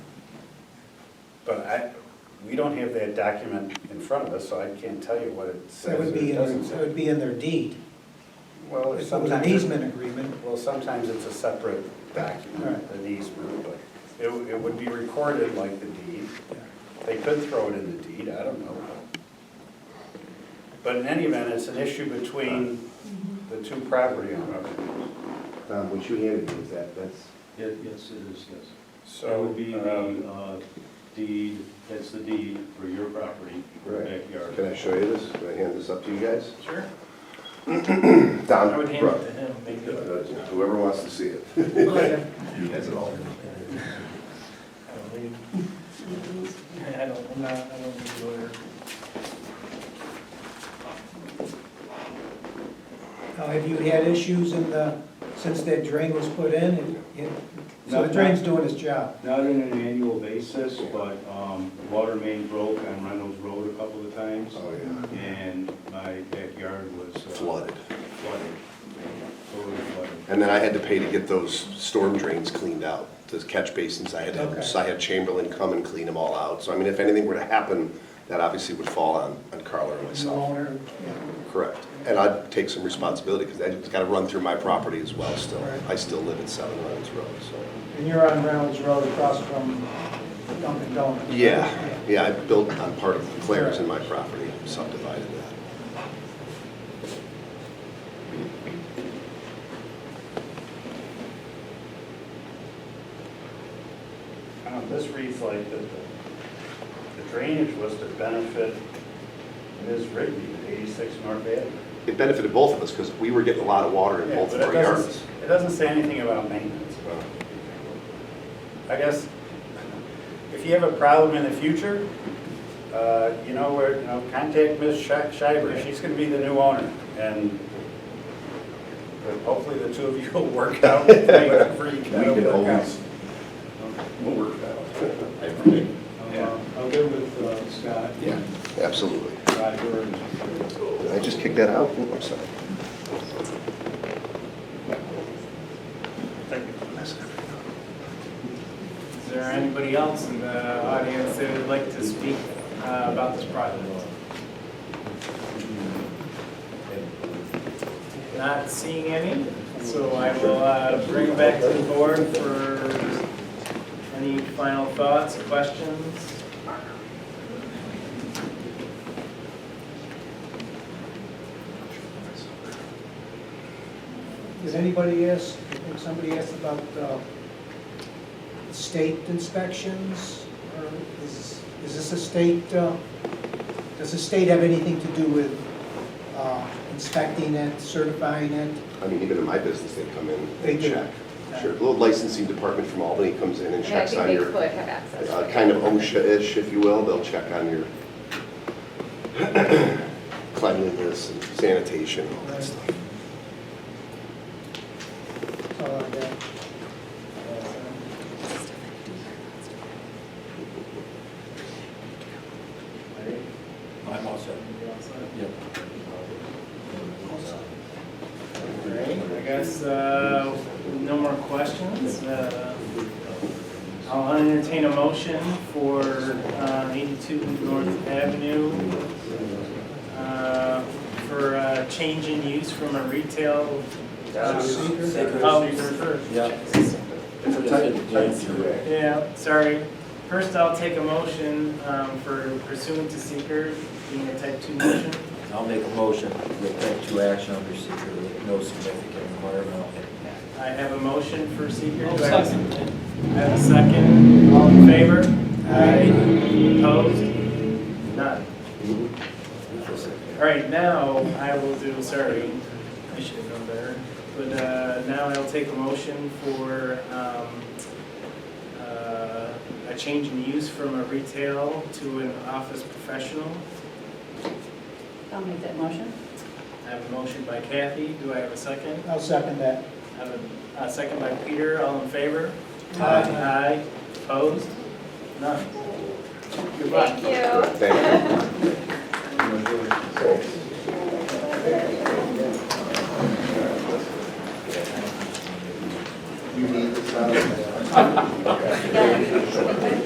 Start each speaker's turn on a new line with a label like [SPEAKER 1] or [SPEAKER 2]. [SPEAKER 1] But I, we don't have that document in front of us, so I can't tell you what it
[SPEAKER 2] That
[SPEAKER 1] says or
[SPEAKER 2] would be, in
[SPEAKER 1] doesn't
[SPEAKER 2] their- that would
[SPEAKER 1] say.
[SPEAKER 2] be in their deed.
[SPEAKER 1] Well,
[SPEAKER 2] If it was an
[SPEAKER 1] sometimes,
[SPEAKER 2] easement agreement,
[SPEAKER 1] well, sometimes it's a separate document,
[SPEAKER 2] Right.
[SPEAKER 1] an easement, but it, it would be recorded like the deed.
[SPEAKER 2] yeah.
[SPEAKER 1] They could throw it in the deed, I don't know. But in any event, it's an issue between the two property owners.
[SPEAKER 3] Tom, Um, what you handed me is that, that's,
[SPEAKER 4] Yes, yes, it is, yes. That
[SPEAKER 1] So,
[SPEAKER 4] would be the
[SPEAKER 1] um,
[SPEAKER 4] uh, deed, that's the deed for your property, your
[SPEAKER 3] Right.
[SPEAKER 4] backyard.
[SPEAKER 3] can I show you this? Can I hand this up to you guys?
[SPEAKER 4] Sure.
[SPEAKER 3] Tom,
[SPEAKER 4] I would hand it
[SPEAKER 3] Brooke,
[SPEAKER 4] to him, make it.
[SPEAKER 5] Uh,
[SPEAKER 3] whoever wants to see it. That's it all.
[SPEAKER 4] I don't need- I don't, I'm not, I don't need a lawyer.
[SPEAKER 2] Now, have you had issues in the, since that drain was put in? It- it- So the drain's doing its job.
[SPEAKER 4] Not on an annual basis, but um, the water main broke on Reynolds Road a couple of times,
[SPEAKER 3] Oh, yeah.
[SPEAKER 4] and my backyard was. uh,
[SPEAKER 5] flooded.
[SPEAKER 4] Flooded. Totally flooded.
[SPEAKER 5] And then I had to pay to get those storm drains cleaned out, those catch basins, I had, to- so I had Chamberlain come and clean them all out. So I mean, if anything were to happen, that obviously would fall on, on Carla or
[SPEAKER 2] The
[SPEAKER 5] myself,
[SPEAKER 2] owner,
[SPEAKER 4] Mm-hmm.
[SPEAKER 2] yeah.
[SPEAKER 5] correct. And I'd take some responsibility, because that's gotta run through my property as well still.
[SPEAKER 2] Right.
[SPEAKER 5] I still live at Seven Lions Road, so.
[SPEAKER 2] And you're on Reynolds Road across from Dunkin' Donuts.
[SPEAKER 5] Yeah, yeah, I built on part of Claire's in my property, subdivided that.
[SPEAKER 1] um, this reads like that the the drainage was to benefit Ms. Rigby, at 86 North Avenue.
[SPEAKER 5] It benefited both of us, because we were getting a lot of water in
[SPEAKER 1] Yeah,
[SPEAKER 5] both
[SPEAKER 1] but
[SPEAKER 5] of
[SPEAKER 1] it
[SPEAKER 5] our
[SPEAKER 1] doesn't-
[SPEAKER 5] yards.
[SPEAKER 1] It doesn't say anything about maintenance. well, I guess, if you have a problem in the future, uh, you know, where, you know, contact Ms. Shi- Shiver, she's gonna be the new owner, and but hopefully the two of you will work out whatever you
[SPEAKER 5] We
[SPEAKER 1] gotta
[SPEAKER 5] can
[SPEAKER 1] work out.
[SPEAKER 5] always, we'll work that out. I agree.
[SPEAKER 4] I'll, uh, I'll get with uh, Scott.
[SPEAKER 5] Yeah, absolutely.
[SPEAKER 4] Roger and
[SPEAKER 5] Did I just kicked that out? Oh, I'm sorry.
[SPEAKER 1] Thank you.
[SPEAKER 6] Is there anybody else in the audience that would like to speak uh, about this project? Not seeing any, so I will uh, bring it back to the board for any final thoughts, questions?
[SPEAKER 2] Did anybody ask, I think somebody asked about uh, state inspections? Or is, is this a state, uh, does the state have anything to do with uh, inspecting it, certifying it?
[SPEAKER 5] I mean, even in my business, they come in
[SPEAKER 2] They
[SPEAKER 5] and
[SPEAKER 2] do.
[SPEAKER 5] check. Sure, the little licensing department from Albany comes in and
[SPEAKER 7] And I
[SPEAKER 5] checks
[SPEAKER 7] think
[SPEAKER 5] on
[SPEAKER 7] they
[SPEAKER 5] your,
[SPEAKER 7] could have access. to
[SPEAKER 5] uh,
[SPEAKER 7] it.
[SPEAKER 5] kind of OSHA-ish, if you will, they'll check on your cleanliness and sanitation, all that stuff.
[SPEAKER 2] That's all I got.
[SPEAKER 4] I'm all set.
[SPEAKER 6] All right, I guess, uh, no more questions. Uh, I'll entertain a motion for uh, 82 North Avenue uh, for uh, change in use from a retail. uh, Oh, Yeah.
[SPEAKER 3] It's a type of correct.
[SPEAKER 6] Yeah, sorry. First, I'll take a motion um, for pursuant to seeker, being a type 2 motion.
[SPEAKER 8] I'll make a motion with type two action under seeker with no significant environmental impact.
[SPEAKER 6] I have a motion for seeker. Do I have a second? I have a second. All in favor? Aye. Opposed? None. All right, now I will do, sorry, I should have known better. But uh, now I'll take a motion for um, uh, a change in use from a retail to an office professional.
[SPEAKER 7] I'll make that motion.
[SPEAKER 6] I have a motion by Kathy. Do I have a second?
[SPEAKER 2] I'll second that.
[SPEAKER 6] I have a, a second by Peter, all in favor?
[SPEAKER 2] Aye.
[SPEAKER 6] Aye, opposed? None. Good luck.
[SPEAKER 7] Thank you.
[SPEAKER 5] Thank you.
[SPEAKER 3] You need this, Tom?